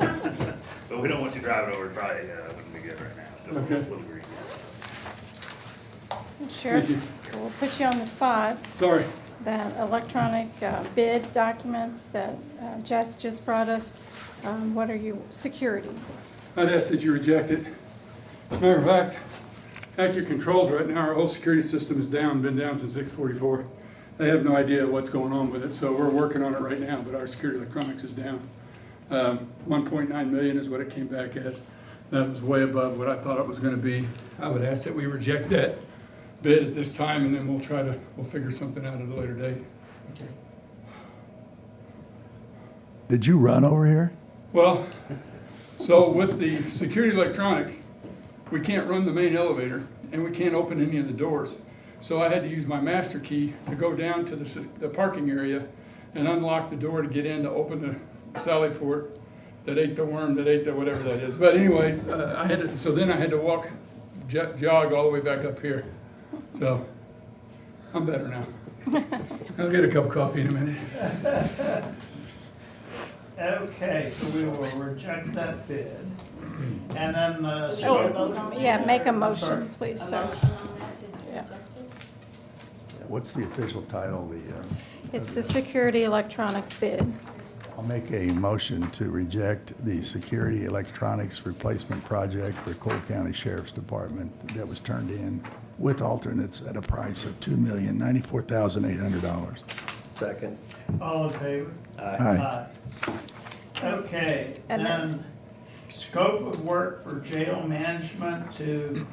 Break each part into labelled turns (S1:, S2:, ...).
S1: But we don't want you driving over, probably, uh, wouldn't be good right now, still a
S2: Okay.
S1: little green.
S2: Thank you.
S3: Sheriff, we'll put you on the spot.
S2: Sorry.
S3: That electronic uh, bid documents that uh, Jess just brought us, um, what are you, security?
S2: I'd ask that you reject it. Matter of fact, at your controls right now, our whole security system is down, been down since six forty-four. They have no idea what's going on with it, so we're working on it right now, but our security electronics is down. Um, one point nine million is what it came back as. That was way above what I thought it was gonna be. I would ask that we reject that bid at this time, and then we'll try to, we'll figure something out at a later date.
S4: Did you run over here?
S2: Well, so with the security electronics, we can't run the main elevator and we can't open any of the doors. So I had to use my master key to go down to the, sys- the parking area and unlock the door to get in to open the sally port that ate the worm, that ate the whatever that is. But anyway, uh, I had to, so then I had to walk, jo- jog all the way back up here. So I'm better now. I'll get a cup of coffee in a minute.
S5: Okay, so we will reject that bid. And then, uh.
S3: Oh, yeah, make a
S5: I'm sorry.
S3: motion, please, sir. Yeah.
S4: What's the official title? The, uh,
S3: It's the security electronics bid.
S4: I'll make a motion to reject the security electronics replacement project for Cole County Sheriff's Department that was turned in with alternates at a price of two million ninety-four thousand eight hundred dollars.
S6: Second.
S5: All in favor?
S4: Aye.
S5: Okay,
S3: And
S5: then scope of work for jail management to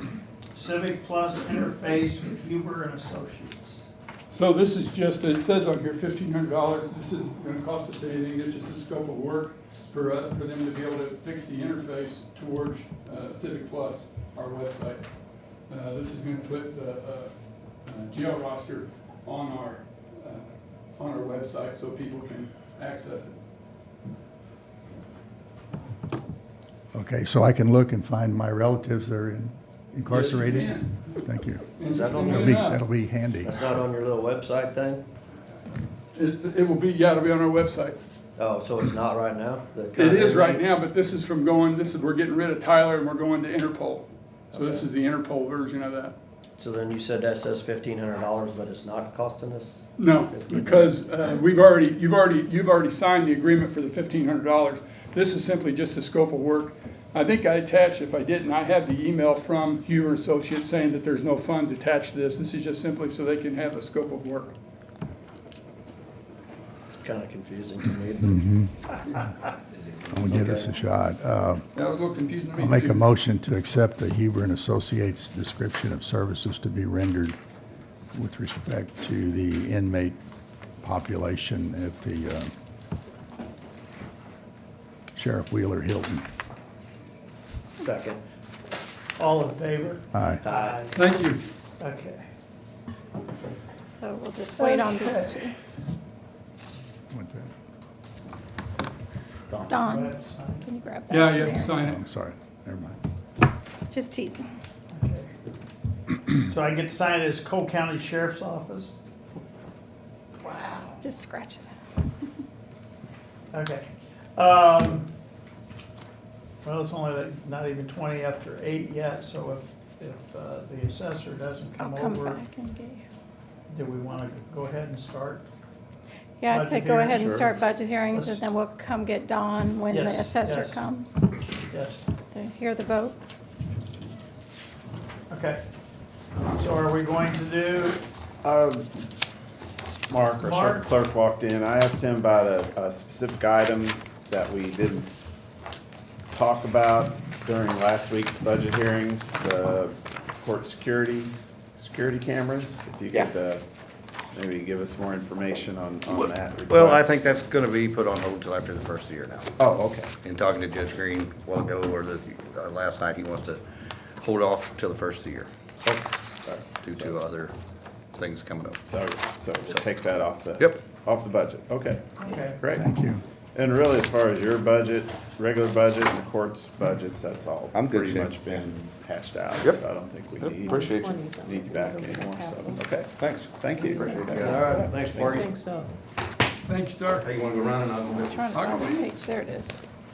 S5: Civic Plus interface with Huber and Associates.
S2: So this is just, it says on here fifteen hundred dollars, this isn't gonna cost us anything, it's just the scope of work for us, for them to be able to fix the interface towards uh, Civic Plus, our website. Uh, this is gonna put the, uh, uh, jail roster on our, uh, on our website so people can access it.
S4: Okay, so I can look and find my relatives that are in- incarcerated?
S2: Yes, you
S4: Thank you.
S2: can. And just
S6: That'll
S4: That'll
S2: leave
S4: be,
S2: it up.
S4: that'll be handy.
S6: That's not on your little website thing?
S2: It's, it will be, yeah, it'll be on our website.
S6: Oh, so it's not right now? The
S2: It is right
S6: contact
S2: now,
S6: links?
S2: but this is from going, this is, we're getting rid of Tyler and we're going to Interpol. So this
S6: Okay.
S2: is the Interpol version of that.
S6: So then you said that says fifteen hundred dollars, but it's not costing us?
S2: No, because uh, we've already, you've already, you've already signed the agreement for the fifteen hundred dollars. This is simply just a scope of work. I think I attached, if I didn't, I have the email from Huber Associates saying that there's no funds attached to this. This is just simply so they can have a scope of work.
S6: It's kinda confusing to me, but
S4: I'm gonna give this a shot. Uh,
S2: That was a little confusing to me.
S4: I'll make
S2: too.
S4: a motion to accept the Huber and Associates description of services to be rendered with respect to the inmate population at the uh, Sheriff Wheeler Hilton.
S6: second.
S5: All in favor?
S4: Aye.
S6: Aye.
S2: Thank you.
S5: Okay.
S3: So we'll just wait on these two.
S4: What's that?
S3: Don,
S5: Right, sign.
S3: can you grab that?
S2: Yeah,
S3: from
S2: you have to
S3: there?
S2: sign
S4: Oh,
S2: it.
S4: I'm sorry, never mind.
S3: Just teasing.
S5: Okay. So I get to sign it as Cole County Sheriff's Office? Wow.
S3: Just scratch it.
S5: Okay. Um, Well, it's only like not even 20 after 8 yet, so if, if uh, the assessor doesn't
S3: I'll
S5: come
S3: come
S5: over,
S3: back and get you.
S5: do we want to go ahead and start?
S3: Yeah, I'd say
S5: Budget
S3: go ahead
S5: hearings,
S3: and
S6: sure.
S3: start budget hearings, and
S5: Let's-
S3: then we'll come get Don when the
S5: Yes,
S3: assessor
S5: yes.
S3: comes
S5: Yes,
S3: to hear the vote.
S5: okay. So are we going to do,
S7: Uh, Mark, our
S5: Mark?
S7: circuit clerk walked in, I asked him about a, a specific item that we didn't talk about during last week's budget hearings, the court security, security cameras, if you could, uh, maybe give us more information on, on that request.
S8: Well, I think that's gonna be put on hold till after the first of the year now.
S7: Oh, okay,
S8: And talking to Judge Green a while ago, or the, uh, last night, he wants to hold off till the first of the year
S7: okay, all right.
S8: due to other things coming up.
S7: so, so take that off the.
S8: Yep.
S7: Off the budget, okay,
S5: okay,
S7: great.
S4: Thank you.
S7: And really, as far as your budget, regular budget and the court's budgets, that's all
S8: I'm good,
S7: pretty
S8: Shane.
S7: much been hashed out.
S8: Yep.
S7: So I don't think we need,
S8: appreciate you.
S7: need you back anymore, so, okay,
S8: Thanks.
S7: thank you.
S6: All right, thanks, Marty.
S2: Thank you, sir.
S8: Hey, you wanna go around and I'll go
S3: I was trying to
S8: I'll
S3: find
S8: go
S3: the page, there it is.